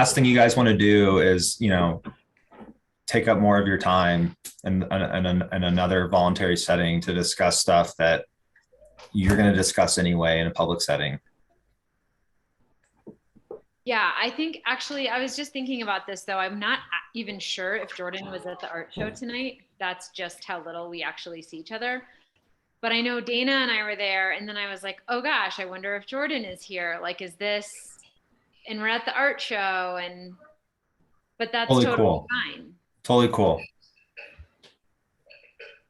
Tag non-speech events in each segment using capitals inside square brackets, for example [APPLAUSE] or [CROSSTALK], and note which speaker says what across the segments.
Speaker 1: last thing you guys want to do is, you know, take up more of your time in, in, in in another voluntary setting to discuss stuff that you're going to discuss anyway in a public setting.
Speaker 2: Yeah, I think actually, I was just thinking about this though. I'm not a- even sure if Jordan was at the art show tonight. That's just how little we actually see each other. But I know Dana and I were there, and then I was like, oh gosh, I wonder if Jordan is here. Like, is this? And we're at the art show, and but that's
Speaker 1: Totally
Speaker 2: totally
Speaker 1: cool.
Speaker 2: fine.
Speaker 1: Totally cool.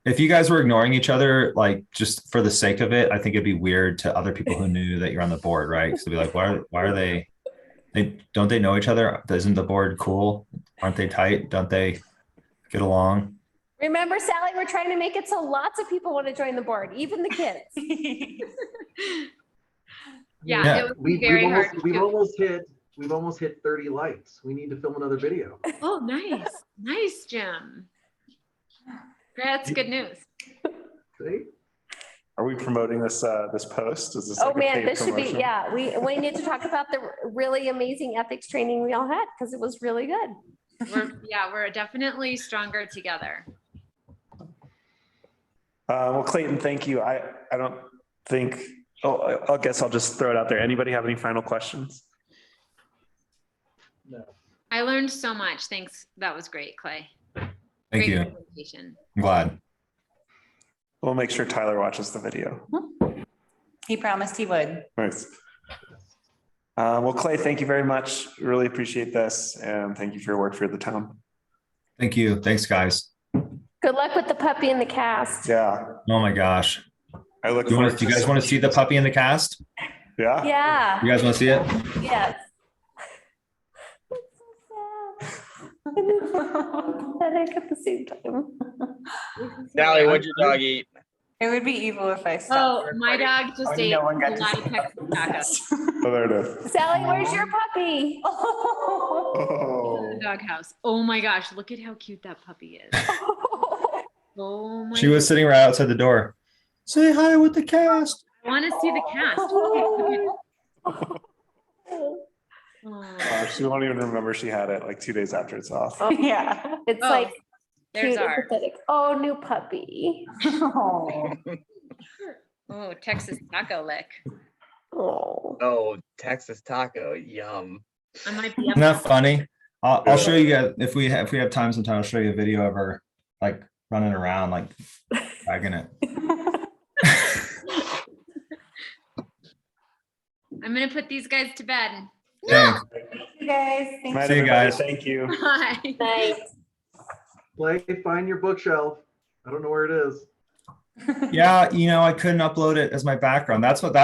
Speaker 1: If you guys were ignoring each other, like just for the sake of it, I think it'd be weird to other people who knew that you're on the board, right? So be like, why are why are they? They don't they know each other? Isn't the board cool? Aren't they tight? Don't they get along?
Speaker 3: Remember, Sally, we're trying to make it so lots of people want to join the board, even the
Speaker 4: [LAUGHS]
Speaker 3: kids.
Speaker 2: Yeah,
Speaker 1: Yeah,
Speaker 2: it would be
Speaker 5: We've,
Speaker 2: very
Speaker 5: we've,
Speaker 2: hard.
Speaker 5: almost, we've
Speaker 2: to-
Speaker 5: almost hit, we've almost hit 30 likes. We need to film
Speaker 2: [LAUGHS]
Speaker 5: another video.
Speaker 2: Oh, nice, nice, Jim. That's good news.
Speaker 5: See?
Speaker 4: Are we promoting this, uh, this post? Is this?
Speaker 3: Oh,
Speaker 4: like a
Speaker 3: man,
Speaker 4: paid
Speaker 3: this should be,
Speaker 4: promotion?
Speaker 3: yeah, we, we need to talk about the really amazing ethics training we all had because it was really good.
Speaker 2: We're yeah, we're definitely stronger together.
Speaker 4: Uh, well, Clayton, thank you. I, I don't think, oh, I, I guess I'll just throw it out there. Anybody have any final questions?
Speaker 5: No.
Speaker 2: I learned so much. Thanks. That was great, Clay.
Speaker 1: Thank
Speaker 2: great
Speaker 1: you.
Speaker 2: presentation.
Speaker 1: I'm glad.
Speaker 4: We'll make sure Tyler watches the video.
Speaker 6: He promised he would.
Speaker 4: Thanks. Uh, well, Clay, thank you very much. Really appreciate this and thank you for your work for the town.
Speaker 1: Thank you. Thanks, guys.
Speaker 3: Good luck with the puppy and the cast.
Speaker 4: Yeah,
Speaker 1: Oh my gosh.
Speaker 4: I look.
Speaker 1: You
Speaker 4: forward
Speaker 1: want do you
Speaker 4: to-
Speaker 1: guys want to see the puppy in the cast?
Speaker 4: Yeah,
Speaker 3: Yeah,
Speaker 1: You guys want to see it?
Speaker 3: yes. Pathetic at the same time.
Speaker 7: Sally, what'd your dog eat?
Speaker 6: It would be evil if I
Speaker 2: Oh,
Speaker 6: stopped.
Speaker 2: my dog just
Speaker 6: Only
Speaker 2: ate
Speaker 6: no
Speaker 2: a
Speaker 6: one got to
Speaker 2: lot of
Speaker 6: see
Speaker 2: Texas tacos.
Speaker 4: oh, there it is.
Speaker 3: Sally, where's your puppy? [LAUGHS]
Speaker 2: in
Speaker 4: Oh,
Speaker 2: The doghouse. Oh my gosh, look at how cute that puppy is. Oh my.
Speaker 1: She was sitting right outside the door. Say hi with the cast.
Speaker 2: I want to see the cast. Look at-
Speaker 3: [LAUGHS]
Speaker 4: [LAUGHS]
Speaker 2: look at-
Speaker 6: [LAUGHS]
Speaker 4: Uh, she won't even remember she had it like two days after it's off.
Speaker 6: Yeah.
Speaker 3: It's
Speaker 2: Oh,
Speaker 3: like
Speaker 2: There's
Speaker 3: cute and
Speaker 2: our
Speaker 3: pathetic. Oh, new puppy.
Speaker 6: Oh.
Speaker 2: oh Texas taco lick.
Speaker 3: Oh.
Speaker 7: Oh, Texas taco, yum.
Speaker 2: I might be up.
Speaker 1: Isn't that funny? I'll, I'll show you guys if we have, if we have time sometime, I'll show you a video of her like running around, like dragging it.
Speaker 2: I'm gonna put these guys to bed. [LAUGHS]
Speaker 1: Thanks.
Speaker 6: You guys, thank
Speaker 4: Night,
Speaker 1: See you
Speaker 4: everybody.
Speaker 1: guys.
Speaker 4: Thank you.
Speaker 2: Bye.
Speaker 3: Nice.
Speaker 5: Play, find your bookshelf. I don't know where it is.
Speaker 1: Yeah, you know, I couldn't upload it as my background. That's what, that's